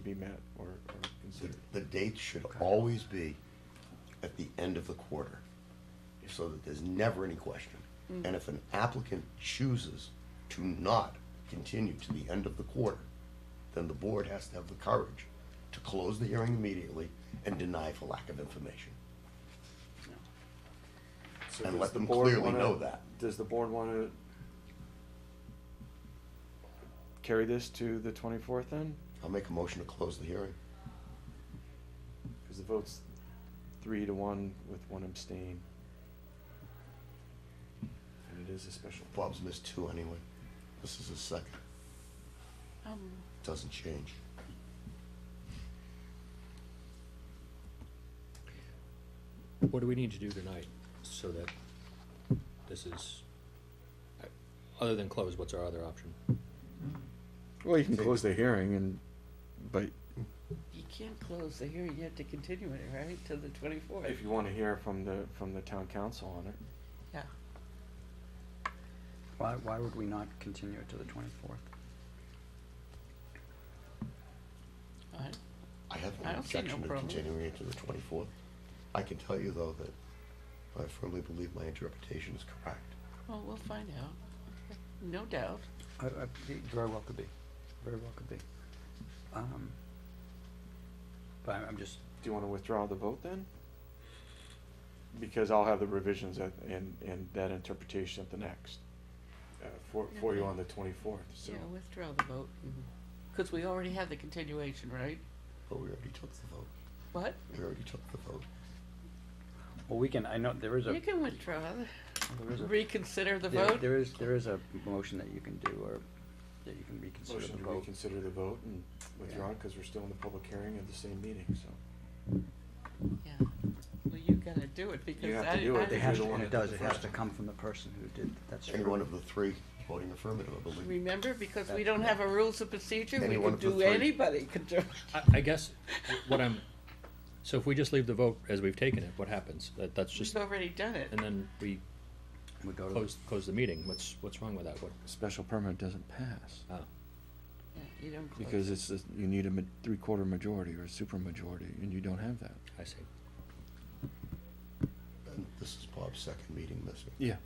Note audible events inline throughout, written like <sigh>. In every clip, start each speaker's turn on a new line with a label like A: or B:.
A: be met or, or
B: The-
A: considered.
B: The dates should always be at the end of the quarter, so that there's never any question. And if an applicant chooses to not continue to the end of the quarter, then the board has to have the courage to close the hearing immediately and deny for lack of information.
C: So
B: And
C: does
B: let
C: the
B: them
C: board
B: clearly
C: wanna-
B: know that.
A: Does the board wanna carry this to the twenty-fourth then?
B: I'll make a motion to close the hearing.
A: Cause the vote's three to one with one abstain. And it is a special.
B: Bob's missed two anyway. This is his second.
D: Um,
B: Doesn't change.
E: What do we need to do tonight so that this is, other than close, what's our other option?
A: Well, you can close the hearing and, but.
D: you can't close the hearing, you have to continue it, right, to the twenty-fourth?
A: If you wanna hear from the, from the town council on it.
D: Yeah,
F: Why, why would we not continue it to the twenty-fourth?
D: all right,
B: I have
D: I
B: no
D: don't see no
B: objection to
D: problem.
B: continuing it to the twenty-fourth. I can tell you though that I firmly believe my interpretation is correct.
D: well, we'll find out, no doubt.
F: I, I, it very well could be, very well could be. Um, But I'm, I'm just,
A: Do you wanna withdraw the vote then? Because I'll have the revisions at, and, and that interpretation at the next, uh, for, for you on the twenty-fourth, so. Mm-hmm.
D: Yeah, withdraw the vote, because we already had the continuation, right?
B: But we already took the vote.
D: What?
B: We already took the vote.
F: well, we can, I know, there is a,
D: You can withdraw,
F: there is a.
D: reconsider the
F: there-
D: vote.
F: There is, there is a motion that you can do, or that you can reconsider
A: Motion
F: the
A: to
F: vote.
A: reconsider the vote and withdraw, because we're still in the public hearing of the same meeting, so.
D: Yeah, well, you gotta do it, because
A: have
D: I.
A: to do it.
D: I-
A: They
F: It has,
A: You're the
F: to-
A: one
F: and
A: that
F: it
A: did
F: does,
A: the
F: it has
A: first
F: to
A: one.
F: come from the person who did, that's
B: Any
F: true.
B: one of the three voting affirmative, I believe.
D: Remember, because we
F: That-
D: don't have a rules of procedure,
B: Any
D: we
B: one
D: could
B: of the three.
D: do, anybody could do.
E: I, I guess what I'm, so if we just leave the vote as we've taken it, what happens? That, that's
D: We've
E: just,
D: already done it.
E: and then we
F: We go to, the-
E: close, close the meeting. What's, what's wrong with that? What,
A: Special permit doesn't pass,
E: oh,
D: Yeah, You don't close.
A: because
D: it.
A: it's, a- you need a ma- three-quarter majority or a supermajority, and you don't have that.
E: I see.
B: And this is Bob's second meeting missing.
A: Yeah.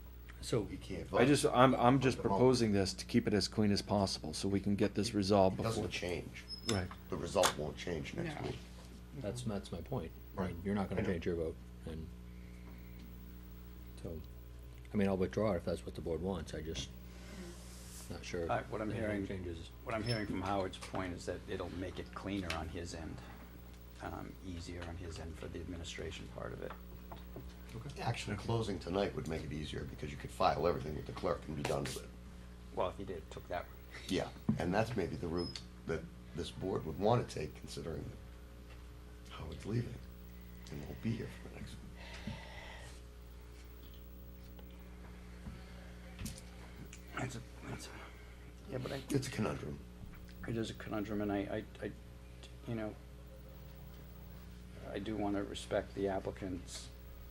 E: So,
B: He can't vote.
A: I just, I'm, I'm
B: just
A: just
B: Vote.
A: proposing
B: proposing
A: this to keep it as clean as possible, so we can get this resolved
B: It
A: before.
B: doesn't change.
A: Right.
B: The result won't change next
D: No.
B: week.
E: that's, that's my point. I
B: Right.
E: mean, you're not
B: I
E: gonna
B: know.
E: change your vote and, so, I mean, I'll withdraw if that's what the board wants. I just, not sure.
F: I- what I'm
E: if it
F: hearing-
E: Changes.
F: what I'm hearing from Howard's point is that it'll make it cleaner on his end, um, easier on his end for the administration part of it.
B: Actually, closing tonight would make it easier because you could file everything with the clerk and be done with it.
F: Well, if he did, took that route.
B: Yeah, and that's maybe the route that this board would want to take considering how it's leaving. And won't be here for the next one.
F: That's a, that's a, yeah, but I,
B: It's a conundrum.
F: it is a conundrum, and I, I, I, you know, I do wanna respect the applicant's,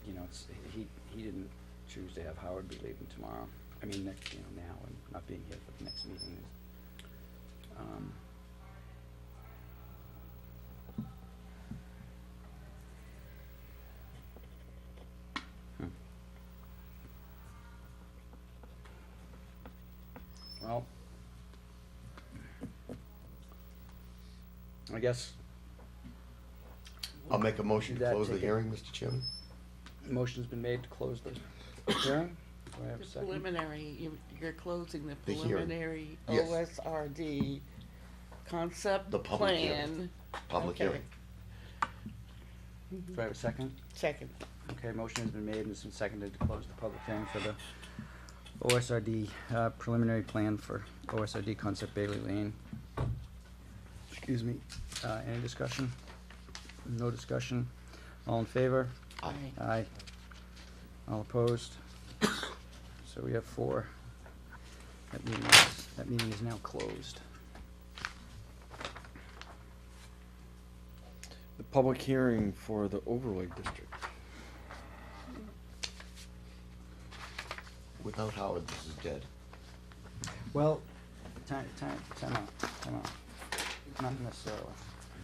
F: you know, it's, he, he didn't choose to have Howard be leaving tomorrow, I mean, next, you know, now, and not being here for the next meeting. Um, Hmm. Well, I guess
B: I'll make a motion
F: Do
B: to
F: that,
B: close the
F: take it.
B: hearing, Mr. Chairman.
F: Motion's been made to close the hearing. Do I have a
D: The
F: second?
D: preliminary, you- you're closing the
B: The hearing.
D: preliminary
B: Yes.
D: OSRD concept
B: The public hearing.
D: plan.
B: Public
D: Okay.
B: hearing.
F: Do I have a second?
D: Second.
F: Okay, motion has been made and it's been seconded to close the public hearing for the OSRD uh, preliminary plan for OSRD Concept Bailey Lane. Excuse me, Uh, any discussion? No discussion? All in favor?
B: Aye.
D: Right.
F: Aye. All opposed? <coughs> So we have four. That meeting is, that meeting is now closed.
A: The public hearing for the overlay district.
B: Without Howard, this is dead.
F: Well, time, time, time out, time out. Not necessarily.